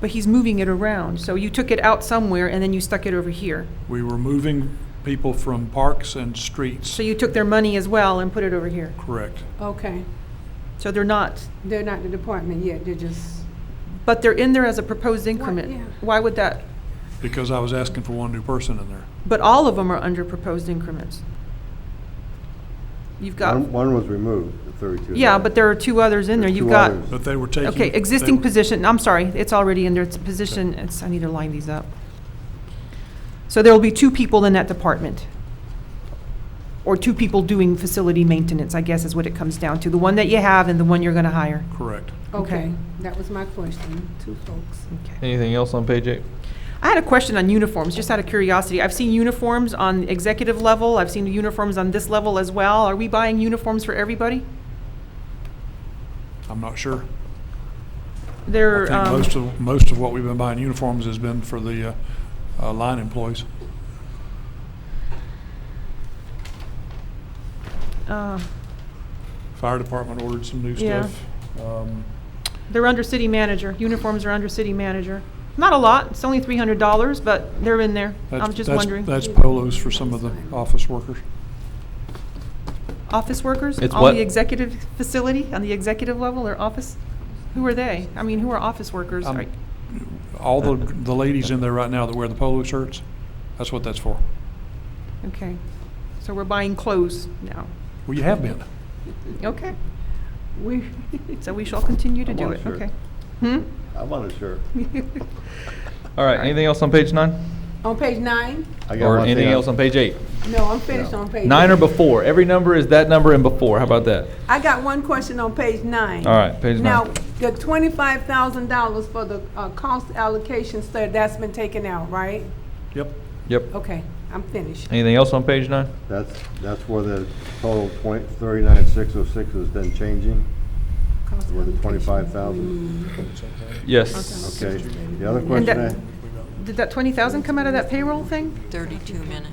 but he's moving it around. So you took it out somewhere and then you stuck it over here. We were moving people from parks and streets, So you took their money as well and put it over here. correct. Okay, So they're not, they're not the department yet, they're just, but they're in there as a proposed increment. yeah. Why would that? Because I was asking for one new person in there. But all of them are under proposed increments. You've got, One, one was removed, the thirty-two. yeah, but there are two others in there. There's You've two got, others. But they were taking. okay, they existing were- position, I'm sorry, it's already in there, it's a position, it's, I need to line these up. So there will be two people in that department. Or two people doing facility maintenance, I guess is what it comes down to. The one that you have and the one you're gonna hire. Correct. Okay. okay, that was my question, two folks. Anything else on page eight? I had a question on uniforms, just out of curiosity. I've seen uniforms on executive level, I've seen uniforms on this level as well. Are we buying uniforms for everybody? I'm not sure. I They're, think um, most of, most of what we've been buying uniforms has been for the uh, uh, line employees. uh, Fire department ordered some new Yeah. stuff. Um, they're under city manager. Uniforms are under city manager. Not a lot, it's only three hundred dollars, but they're in there. that's- I'm just that's- wondering. That's polos for some of the office workers. Office workers It's on what? the executive facility, on the executive level or office? Who are they? I mean, who are office workers? Um, Right. All the, the ladies in there right now that wear the polo shirts, that's what that's for. Okay, so we're buying clothes now. Well, you have been. Okay, We, so we shall continue to I do want a it, shirt. okay? Hmm? I want a shirt. All right, anything else on page nine? on page nine? I got Or one thing anything I- else on page eight? No, I'm finished on page. Nine or before? Every number is that number and before. How about that? I got one question on page nine. All right, page Now, nine. the twenty-five thousand dollars for the, uh, cost allocation study, that's been taken out, right? Yep. Yep. Oh. Okay, I'm finished. Anything else on page nine? That's, that's where the total twenty, thirty-nine, six oh six is then changing, Cost where the allocation. twenty-five thousand. Yes. Okay, the other And question I, that- Did that twenty thousand come out of that payroll thing, 32 minutes.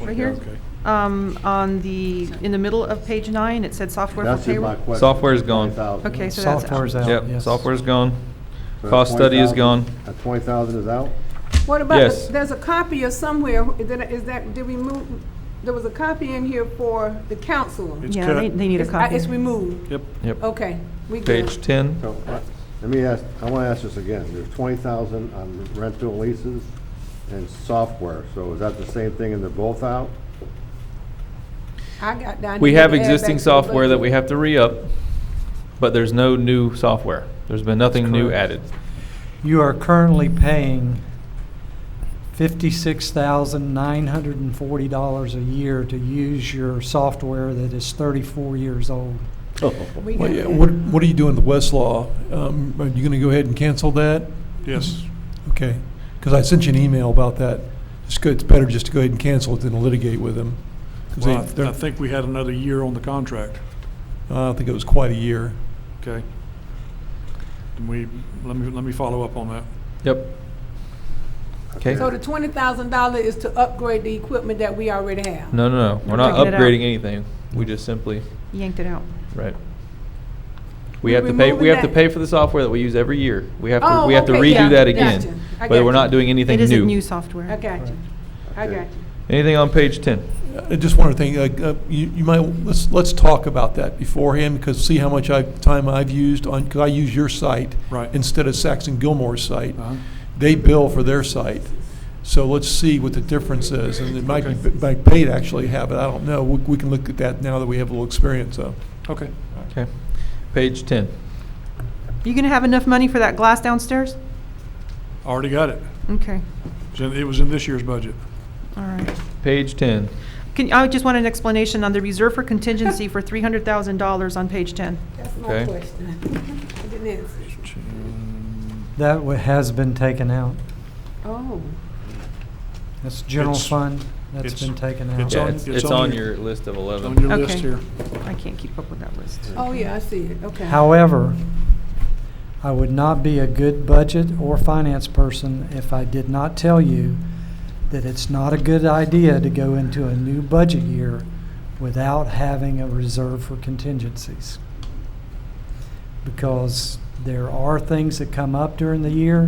right here? Okay. Um, on the, in the middle of page nine, it said software that's for just my payroll. question. Software's gone. 20,000. Okay, so that's Software's out. out, yes. Yep, software's gone. So that Cost study is 20,000 gone. That twenty thousand is out? What about, Yes. the- there's a copy of somewhere, is that- is that, did we move, there was a copy in here for the council. It's Yeah, they, cut. they need a It's- I- copy. It's removed, Yep. Oh. Yep. okay, we good. Page ten. So, uh, let me ask, I want to ask this again. There's twenty thousand on rental leases and software, so is that the same thing and they're both out? I got down. We here have to add back existing to the software that budget. we have to re-up, but there's no new software. There's been nothing new correct. added. You are currently paying fifty-six thousand nine hundred and forty dollars a year to use your software that is thirty-four years old. Oh, We Well, got yeah, that. what, what are you doing with Westlaw? Um, are you gonna go ahead and cancel that? Yes. Okay, because I sent you an email about that. It's good, it's better just to go ahead and cancel it than litigate with them. 'Cause they- Well, I th- I they're- think we had another year on the contract, I don't think it was quite a year. okay? And we, let me, let me follow up on that. Yep. Okay. So the twenty thousand dollar is to upgrade the equipment that we already have? No, no, no. We're not Taking it out. upgrading anything. We just simply, Yanked it out. right. We We're have to pay, we removing have to that. pay for the software that we use every year. We have to, Oh, we have to okay, yeah, redo that gotcha. again. I But we're gotcha. not doing anything It isn't new new. software. I got you, I got you. Anything on page ten? I just wanted to think, uh, uh, you, you might, let's, let's talk about that beforehand, because see how much I, time I've used on, because I use your site. Right. Instead of Saxon Gilmore's site. Uh-huh. They bill for their site. So let's see what the difference is, and it might Okay. be, might pay to actually have it, I don't know. We, we can look at that now that we have a little experience of. Okay. Okay. Page ten. You gonna have enough money for that glass downstairs? Already got it. Okay, It's in- It was in this year's budget. all right. Page ten. Can, I just want an explanation on the reserve for contingency for three hundred thousand dollars on page ten. That's Okay. my question. I didn't answer. That wa- has been taken out. Oh, That's general It's- fund, that's it's- been taken it's out. Yeah, on- it's, it's on it's on your- your list of It's eleven. on your list Okay. here. I can't keep up with that list. oh, yeah, I see it, okay. However, I would not be a good budget or finance person if I did not tell you that it's not a good idea to go into a new budget year without having a reserve for contingencies. Because there are things that come up during the year